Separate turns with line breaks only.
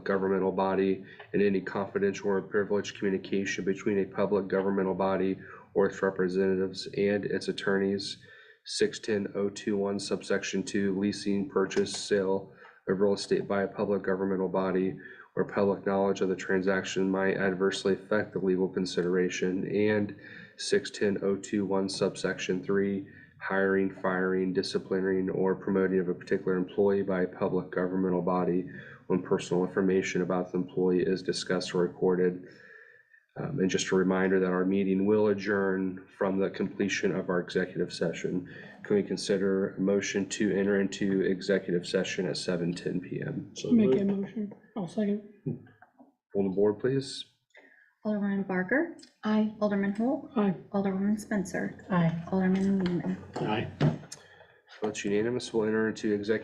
governmental body, and any confidential or privileged communication between a public governmental body or its representatives and its attorneys. Six ten oh two one subsection two, leasing, purchase, sale of real estate by a public governmental body where public knowledge of the transaction might adversely affect the legal consideration, and six ten oh two one subsection three, hiring, firing, disciplining, or promoting of a particular employee by a public governmental body when personal information about the employee is discussed or recorded. Um, and just a reminder that our meeting will adjourn from the completion of our executive session. Can we consider a motion to enter into executive session at seven ten PM?
So
Make a
moved.
motion. I'll second.
Hold the board, please.
Alderman Barker. Aye. Alderman Holt.
Aye.
Alderwoman Spencer. Aye. Alderman Lehman.
Aye.
That's unanimous. We'll enter into executive